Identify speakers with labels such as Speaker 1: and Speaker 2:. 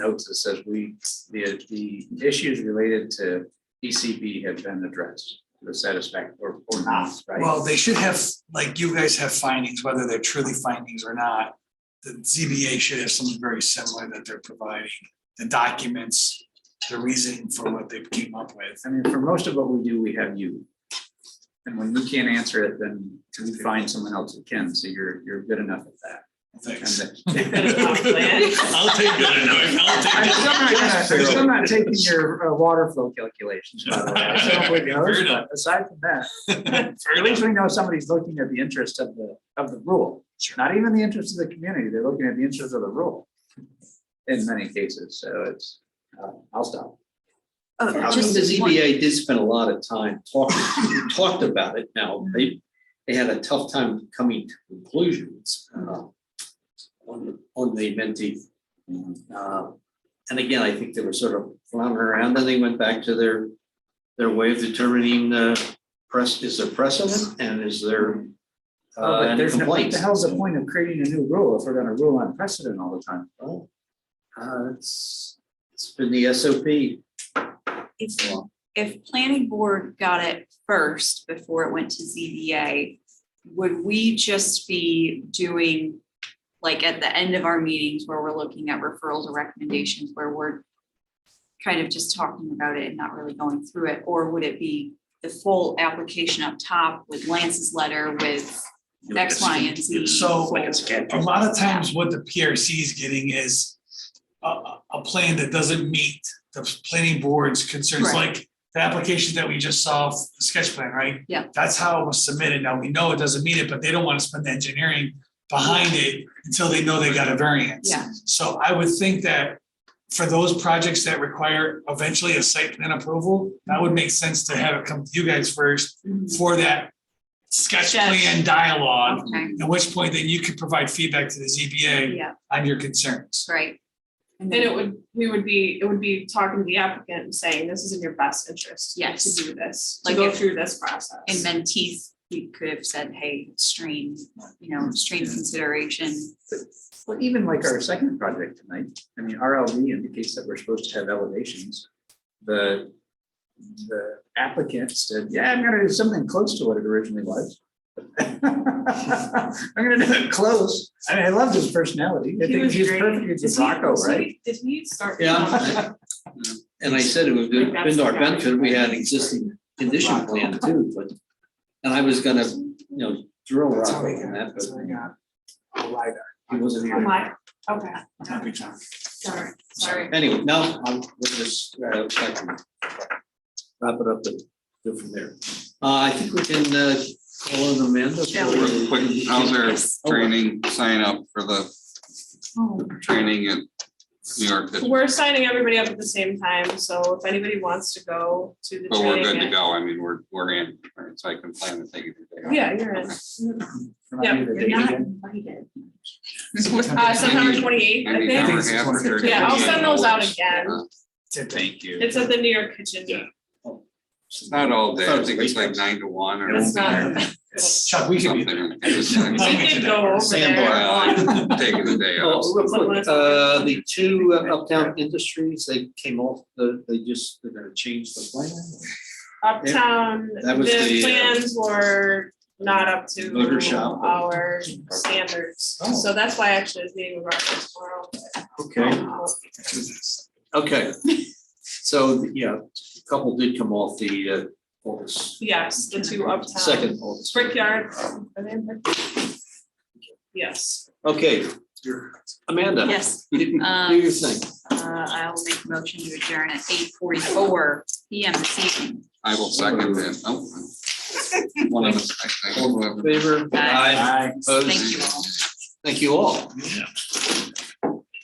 Speaker 1: notes that says we, the, the issues related to ECB have been addressed to the satisfaction or, or not, right?
Speaker 2: Well, they should have, like you guys have findings, whether they're truly findings or not. The ZBA should have something very similar that they're providing, the documents, the reasoning for what they came up with.
Speaker 1: I mean, for most of what we do, we have you. And when you can't answer it, then we find someone else who can, so you're, you're good enough at that. And
Speaker 2: Thanks.
Speaker 1: the-
Speaker 3: I'll take that, annoying- I'll take
Speaker 1: I'm
Speaker 3: that.
Speaker 1: still not gonna- I'm still not taking your uh, water flow calculations, by the way. I still don't believe
Speaker 3: Fair
Speaker 1: those,
Speaker 3: enough.
Speaker 1: but Aside from that, at
Speaker 3: Fairly.
Speaker 1: least we know somebody's looking at the interest of the, of the rule.
Speaker 2: Sure.
Speaker 1: Not even the interest of the community, they're looking at the interest of the rule. In many cases, so it's, uh, I'll stop.
Speaker 4: I
Speaker 5: Oh,
Speaker 4: think
Speaker 5: just
Speaker 4: the
Speaker 5: one-
Speaker 4: ZBA did spend a lot of time talking, we talked about it now. They, they had a tough time coming to conclusions uh, on, on the mentee. Uh, And again, I think they were sort of floundering around, then they went back to their, their way of determining the press, is there precedent and is there
Speaker 1: Uh,
Speaker 4: uh,
Speaker 1: but
Speaker 4: any
Speaker 1: there's no, what
Speaker 4: complaints?
Speaker 1: the hell's the point of creating a new rule if we're gonna rule on precedent all the time?
Speaker 4: Well, uh, It's, it's been the SOP.
Speaker 5: If, if planning board got it first before it went to ZBA, would we just be doing, like, at the end of our meetings where we're looking at referrals or recommendations, where we're kind of just talking about it and not really going through it, or would it be the full application up top with Lance's letter with X, Y, and Z?
Speaker 2: So-
Speaker 3: Like a scan.
Speaker 2: A lot of times what the PRC is getting is a, a, a plan that doesn't meet the planning board's concerns,
Speaker 5: Right.
Speaker 2: like the application that we just saw, the sketch plan, right?
Speaker 5: Yeah.
Speaker 2: That's how it was submitted. Now we know it doesn't meet it, but they don't want to spend the engineering behind it until they know they got a variance.
Speaker 5: Yeah.
Speaker 2: So I would think that for those projects that require eventually a site plan approval, that would make sense to have it come to you guys first
Speaker 5: Mhm.
Speaker 2: for that sketch
Speaker 5: Sketch.
Speaker 2: plan dialogue.
Speaker 5: Okay,
Speaker 2: At which point then you could provide feedback to the ZBA
Speaker 5: yeah,
Speaker 2: on your concerns.
Speaker 5: right.
Speaker 6: And it would, we would be, it would be talking to the applicant and saying, this is in your best interest.
Speaker 5: Yes.
Speaker 6: To do this, to
Speaker 5: Like
Speaker 6: go
Speaker 5: if-
Speaker 6: through this process.
Speaker 5: And mentees, we could have said, hey, stream, you know, stream consideration.
Speaker 1: Well, even like our second project tonight, I mean, RLD indicates that we're supposed to have elevations. The, the applicant said, yeah, I'm gonna do something close to what it originally was. I'm gonna do it close. I mean, I love his personality. I
Speaker 6: He
Speaker 1: think
Speaker 6: was
Speaker 1: he's
Speaker 6: great.
Speaker 1: perfect. He's
Speaker 6: Did
Speaker 1: a
Speaker 6: he-
Speaker 1: Rocco,
Speaker 6: so
Speaker 1: right?
Speaker 6: he- Did he start?
Speaker 4: Yeah. And I said it would have been to our benefit, we had an existing condition plan too, but, and I was gonna, you know, drill
Speaker 2: That's
Speaker 4: Rocco
Speaker 2: all we got,
Speaker 4: on that,
Speaker 2: that's all we
Speaker 4: but
Speaker 2: got. A LiDAR.
Speaker 4: he wasn't
Speaker 6: Oh
Speaker 4: here.
Speaker 6: my, okay,
Speaker 2: Happy time.
Speaker 6: sorry, sorry.
Speaker 4: Anyway, now I'm with this, uh, I can wrap it up and go from there. Uh, I think we can, uh, call on Amanda. for
Speaker 5: Yeah,
Speaker 7: Real quick, how's our
Speaker 5: Yes.
Speaker 6: Oh,
Speaker 7: training sign up for the
Speaker 5: Oh,
Speaker 7: training at New York? But
Speaker 6: We're signing everybody up at the same time, so if anybody wants to go to the training.
Speaker 7: Oh, we're good to
Speaker 6: at-
Speaker 7: go. I mean, we're, we're in, right? so I can plan to take it today.
Speaker 6: Yeah, you're in.
Speaker 1: Remind me of the
Speaker 5: You're
Speaker 1: date
Speaker 5: not
Speaker 1: again.
Speaker 5: invited.
Speaker 6: Uh, September twenty eighth,
Speaker 7: I
Speaker 6: I
Speaker 7: need an hour
Speaker 6: think.
Speaker 7: and a half or 30
Speaker 6: Yeah, I'll
Speaker 7: minutes.
Speaker 6: send those out again.
Speaker 1: Thank you.
Speaker 6: It's at the New York Kitchen.
Speaker 4: Yeah.
Speaker 7: It's not all day. I think it's like nine to one or
Speaker 6: That's not,
Speaker 2: Chuck, we can be there.
Speaker 7: something. It's like-
Speaker 6: we did go over there.
Speaker 7: Well, I'm Taking the day off.
Speaker 4: Oh, real quick, uh, the two uptown industries, they came off, the, they just, they're gonna change the plan.
Speaker 6: Uptown,
Speaker 4: That was
Speaker 6: the
Speaker 4: the, uh,
Speaker 6: plans were not up to
Speaker 4: Motor shop.
Speaker 6: our standards.
Speaker 4: Oh.
Speaker 6: So that's why actually it's meeting with Rutgers tomorrow.
Speaker 4: Okay.
Speaker 6: Um,
Speaker 4: Okay, so, yeah, a couple did come off the, uh, August,
Speaker 6: Yes, the two uptown.
Speaker 5: Um,
Speaker 4: second August.
Speaker 6: Brickyard. are they in Brickyard? Yes,
Speaker 4: Okay, Amanda.
Speaker 5: Yes,
Speaker 4: Do
Speaker 5: um,
Speaker 4: your thing.
Speaker 5: uh, I'll make a motion to adjourn at eight forty-four PM this evening.
Speaker 7: I will second that. Oh,
Speaker 4: One of us.
Speaker 7: I- I-
Speaker 4: All in favor?
Speaker 5: Aye.
Speaker 4: Aye.
Speaker 1: Bye.
Speaker 4: Opposed?
Speaker 5: Thank you all.
Speaker 4: Thank you all.